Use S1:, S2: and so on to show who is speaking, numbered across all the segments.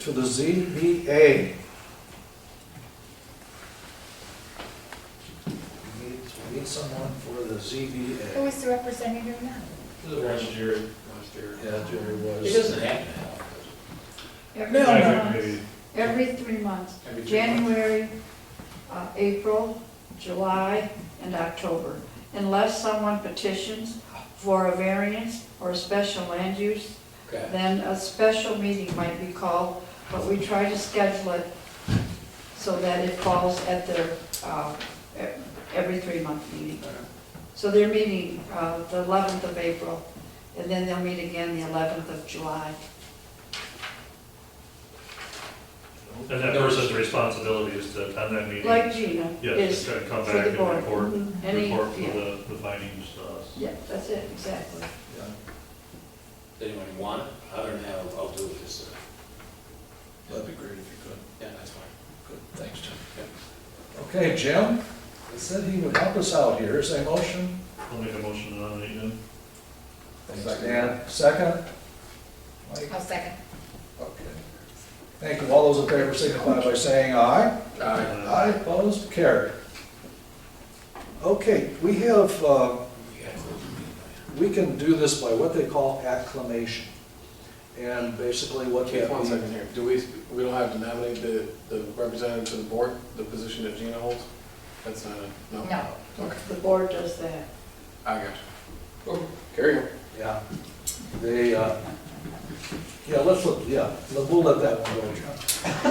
S1: to the ZBA. We need, we need someone for the
S2: Who
S1: ZBA.
S2: is the representative now?
S3: This is last year, last year.
S1: Yeah, Jerry
S3: It
S1: was.
S3: doesn't happen now. does
S4: Every
S1: No, no.
S4: three months, every three months,
S3: it? Every three months.
S4: January, uh, April, July, and October. Unless someone petitions for a variance or a special land use,
S3: Okay.
S4: then a special meeting might be called, but we try to schedule it so that it falls at their, uh, e- every three-month meeting. So they're meeting uh, the 11th of April, and then they'll meet again the 11th of July.
S5: And that person's responsibility is to attend that meeting?
S4: Like Gina
S5: Yes,
S4: is
S5: to come
S4: for
S5: back
S4: the
S5: and
S4: board.
S5: report,
S4: Mhm. Any,
S5: report for
S4: yeah,
S5: the, the findings uh, to us.
S4: yeah, that's it, exactly.
S1: Yeah.
S3: Does anybody want it? Other than that, I'll I'll do it this, uh,
S1: That'd be great if you could.
S3: yeah, that's fine.
S1: Good, thanks, Jim. Okay, Jim, he said he would help us out here. Is there a motion?
S5: I'll make a motion to nominate him.
S1: Thanks, Dan. Second? Mike?
S2: I'll second.
S1: Okay. Thank you. All those in favor signify by saying aye.
S5: Uh,
S1: Aye, opposed, carried. Okay, we have, uh,
S3: You gotta close the meeting, don't
S1: we can do this by what they call acclamation. And basically what
S6: Okay,
S1: that
S6: one second
S1: means.
S6: here. Do we, we don't have to nominate the, the representative to the board, the position that Gina holds? That's not, a- no?
S2: No.
S6: Okay,
S4: The board does that.
S6: I got you. Okay, Carry on.
S1: Yeah. They, uh, yeah, let's, let- yeah, we'll let that one go,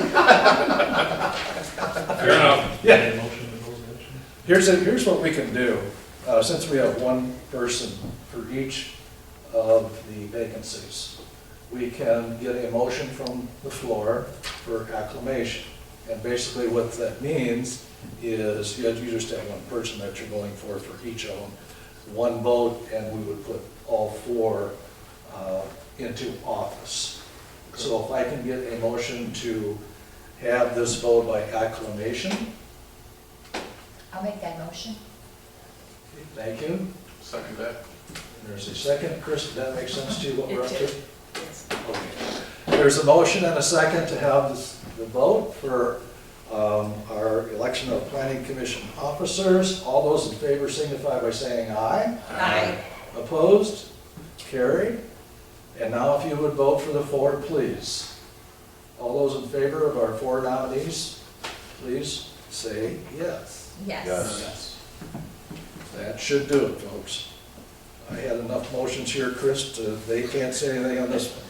S1: John.
S3: Fair enough.
S1: Yeah.
S5: Any motion to close the session?
S1: Here's, a- here's what we can do, uh, since we have one person for each of the vacancies. We can get a motion from the floor for acclamation. And basically what that means is, you you just have one person that you're going for, for each of them, one vote, and we would put all four uh, into office. So if I can get a motion to have this vote by acclamation,
S2: I'll make that motion.
S1: thank you.
S6: Second that.
S1: There's a second, Chris, did that make sense to you, what we're up to?
S2: Yes.
S1: Okay. There's a motion and a second to have this- the vote for um, our election of planning commission officers. All those in favor signify by saying aye.
S2: Aye.
S1: Opposed? Carried. And now if you would vote for the four, please. All those in favor of our four nominees, please say yes.
S2: Yes.
S1: Yes. That should do it, folks. I had enough motions here, Chris, to, they can't say anything on this one.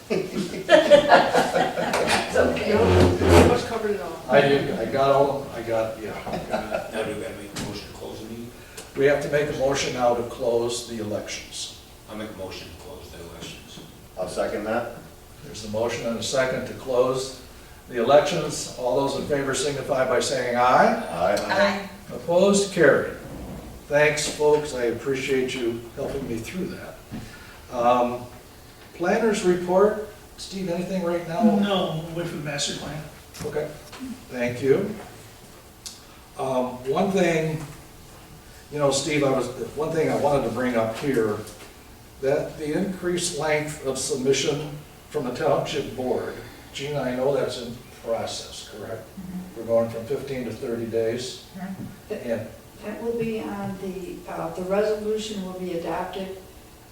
S4: It's okay. Pretty much covered it all.
S1: I did, I got all, I got, yeah.
S3: Uh, Now do we gotta make a motion to close the meeting?
S1: We have to make a motion now to close the elections.
S3: I'll make a motion to close the elections.
S7: I'll second that.
S1: There's a motion and a second to close the elections. All those in favor signify by saying aye.
S7: Aye.
S2: Aye.
S1: Opposed, carried. Thanks, folks, I appreciate you helping me through that. Um, Planners report, Steve, anything right now?
S8: No, wait for the master plan.
S1: Okay, thank you. Um, One thing, you know, Steve, I was, one thing I wanted to bring up here, that the increased length of submission from the township board, Gina, I know that's in process, correct?
S2: Mm-hmm.
S1: We're going from 15 to 30 days,
S2: Mhm.
S1: and,
S4: That will be on the, uh, the resolution will be adopted.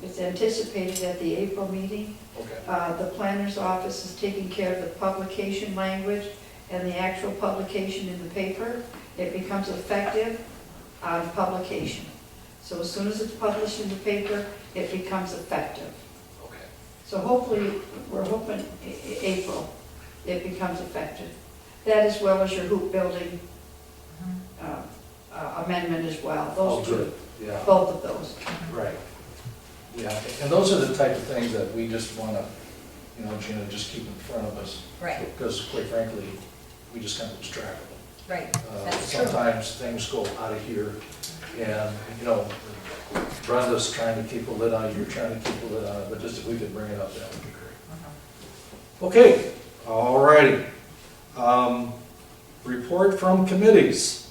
S4: It's anticipated at the April meeting.
S1: okay,
S4: Uh, The planner's office is taking care of the publication language and the actual publication in the paper. It becomes effective on publication. So as soon as it's published in the paper, it becomes effective.
S1: okay.
S4: So hopefully, we're hoping A- A- April, it becomes effective. That as well as your hoop building uh, uh, amendment as well,
S1: Oh,
S4: those two,
S1: Yeah.
S4: both of those.
S2: Mm-hmm.
S1: Right. Yeah, and those are the type of things that we just want to, you know, Gina, just keep in front of us.
S2: Right.
S1: Because quite frankly, we just kind of lose track of them.
S2: Right,
S1: Uh,
S2: that's true.
S1: Sometimes things go out of here, and, you know, Brenda's trying to keep a lid on it, you're trying to keep a lid on it, but just if we could bring it up, that would be great.
S2: Uh-huh.
S1: Okay, all righty. Um, Report from committees.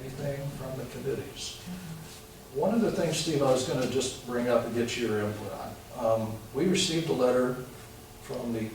S1: Anything from the committees? One of the things, Steve, I was gonna just bring up and get your input on. Um, We received a letter from the